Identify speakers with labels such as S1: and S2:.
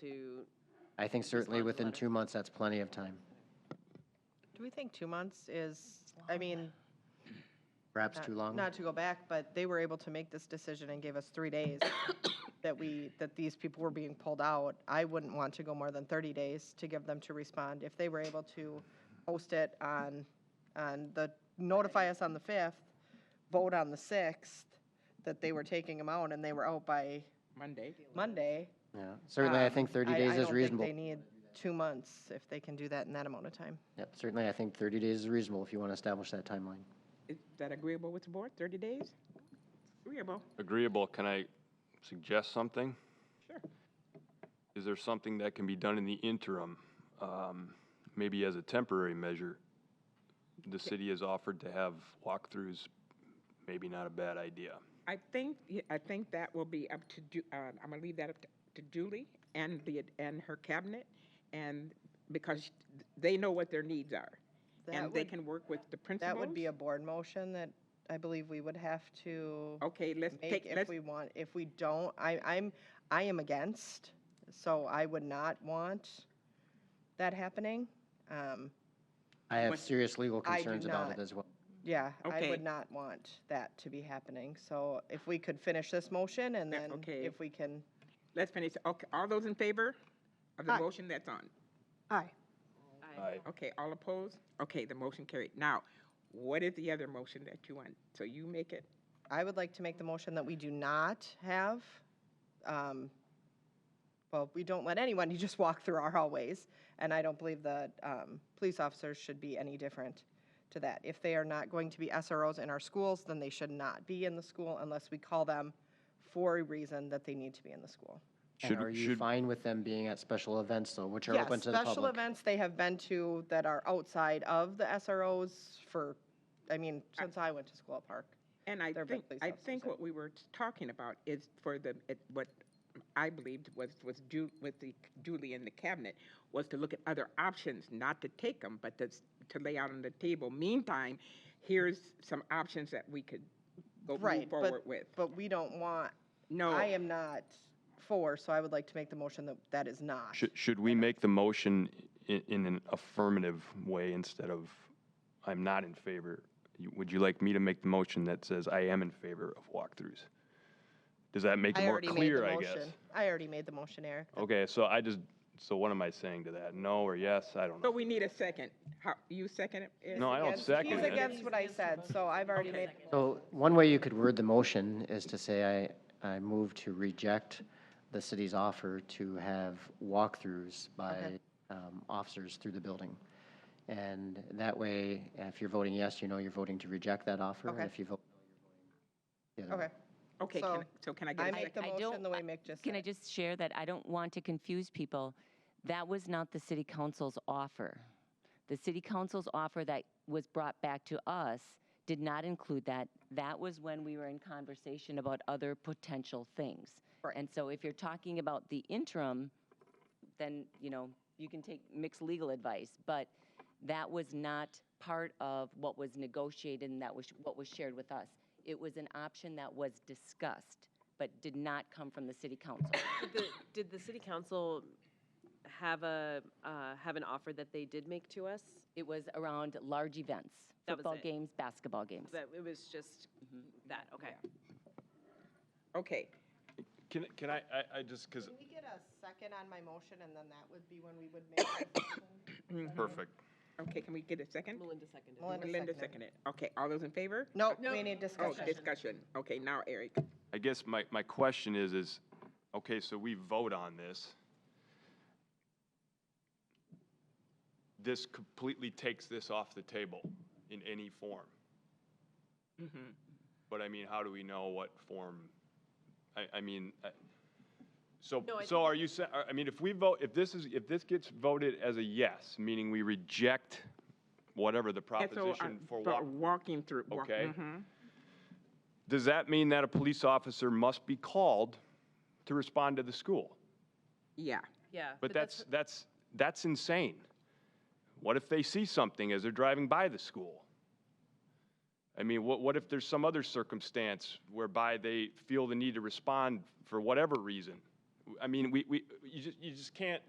S1: to,
S2: I think certainly
S1: respond to the
S2: within
S1: letter.
S2: two months, that's plenty of time.
S1: do we think two months is, I mean,
S2: Perhaps
S1: not-
S2: too long.
S1: Not to go back, but they were able to make this decision and gave us three days that we, that these people were being pulled out. I wouldn't want to go more than 30 days to give them to respond. If they were able to post it on, on the, notify us on the 5th, vote on the 6th, that they were taking them out and they were out by
S3: Monday.
S1: Monday.
S2: Yeah, certainly, I
S1: um,
S2: think 30
S1: I-
S2: days
S1: I
S2: is
S1: don't think
S2: reasonable.
S1: They need two months if they can do that in that amount of time.
S2: Yep, certainly, I think 30 days is reasonable if you want to establish that timeline.
S3: Is that agreeable with the board, 30 days? Agreeable.
S4: Agreeable, can I suggest something?
S3: Sure.
S4: Is there something that can be done in the interim? um, Maybe as a temporary measure? The city has offered to have walkthroughs, maybe not a bad idea.
S3: I think, yeah, I think that will be up to, Ju- uh, I'm gonna leave that up to- to Julie and the, and her cabinet, and, because they know what their needs are.
S1: That
S3: And they
S1: would-
S3: can work with the principals.
S1: That would be a board motion that I believe we would have to
S3: Okay, Oh, let's
S1: make
S3: take,
S1: if
S3: let's,
S1: we want, if we don't, I, I'm, I am against, so I would not want that happening. Um,
S2: I have
S3: What-
S2: serious legal
S1: I do
S2: concerns about
S1: not.
S2: it as well.
S1: yeah, I
S3: Okay.
S1: would not want that to be happening, so if we could finish this motion and
S3: Yeah,
S1: then
S3: okay.
S1: if we can,
S3: let's finish. Okay, all those in favor of the motion that's on?
S5: Aye.
S4: Aye.
S3: Okay, all opposed? Okay, the motion carried. Now, what is the other motion that you want? So you make it,
S1: I would like to make the motion that we do not have, um, well, we don't let anyone, you just walk through our hallways, and I don't believe that, um, police officers should be any different to that. If they are not going to be SROs in our schools, then they should not be in the school unless we call them for a reason that they need to be in the school.
S2: And
S4: Should-
S2: are you
S4: should-
S2: fine with them being at special events, though, which are
S1: Yeah,
S2: open to the
S1: Special
S2: public?
S1: events they have been to that are outside of the SROs for, I mean, since I went to school at Park.
S3: and I
S1: They're
S3: think,
S1: both police
S3: I
S1: officers,
S3: think
S1: yeah.
S3: what we were talking about is for the, it- what I believed was, was Ju, with the Julie in the cabinet, was to look at other options, not to take them, but to, s- to lay out on the table. Meantime, here's some options that we could go move
S1: Right,
S3: forward
S1: but,
S3: with.
S1: but we don't want
S3: No.
S1: I am not for, so I would like to make the motion that that is not.
S4: Should, should we make the motion in, in an affirmative way instead of, I'm not in favor? You- Would you like me to make the motion that says I am in favor of walkthroughs? Does that make it
S1: I
S4: more
S1: already made the
S4: clear, I guess?
S1: motion. I already made the motion, Eric.
S4: Okay, so I just, so what am I saying to that? No or yes? I don't
S3: So
S4: know.
S3: we need a second. How, you second it? Ed?
S4: No, I don't
S1: Against-
S4: second
S1: He's
S4: it.
S1: against what I said, so I've already made,
S2: So one way you could word the motion is to say, I, I move to reject the city's offer to have walkthroughs by um, officers through the building. And that way, if you're voting yes, you know you're voting to reject that offer. And
S1: Okay.
S2: if you vote, no, you're voting the other way.
S1: okay.
S3: Okay,
S1: So,
S3: can I- so can I get
S1: I
S3: a
S1: make
S3: second?
S1: the
S6: I
S1: motion
S6: don't-
S1: the way Mick just
S6: Can I
S1: said.
S6: just share that I don't want to confuse people? That was not the city council's offer. The city council's offer that was brought back to us did not include that. That was when we were in conversation about other potential things. And so if you're talking about the interim, then, you know, you can take mixed legal advice, but that was not part of what was negotiated and that was, what was shared with us. It was an option that was discussed, but did not come from the city council.
S7: Did the, did the city council have a, uh, have an offer that they did make to us?
S6: It was around large events,
S7: That was
S6: football
S7: it.
S6: games, basketball games.
S7: That it was just that, okay.
S3: Okay,
S4: Can, can I, I, I just, because,
S1: we get a second on my motion, and then that would be when we would make?
S4: perfect.
S3: okay, can we get a second?
S7: Melinda seconded.
S1: Melinda
S3: Linda
S1: seconded.
S3: seconded. Okay, all those in favor?
S1: No, we need
S3: Oh,
S1: discussion.
S3: discussion. Okay, now Eric.
S4: I guess my, my question is, is, okay, so we vote on this. This completely takes this off the table in any form.
S7: Mm-hmm.
S4: But I mean, how do we know what form? I, I mean, I- so,
S7: No, I
S4: so are you, sa- I mean, if we vote, if this is, if this gets voted as a yes, meaning we reject whatever the
S3: And so, uh,
S4: proposition for
S3: but
S4: walk.
S3: Walking through. walk-
S4: Okay.
S3: mhm.
S4: Does that mean that a police officer must be called to respond to the school?
S3: Yeah,
S7: Yeah.
S4: But that's, that's, that's insane. What if they see something as they're driving by the school? I mean, what, what if there's some other circumstance whereby they feel the need to respond for whatever reason? I mean, we, we, you just, you just can't,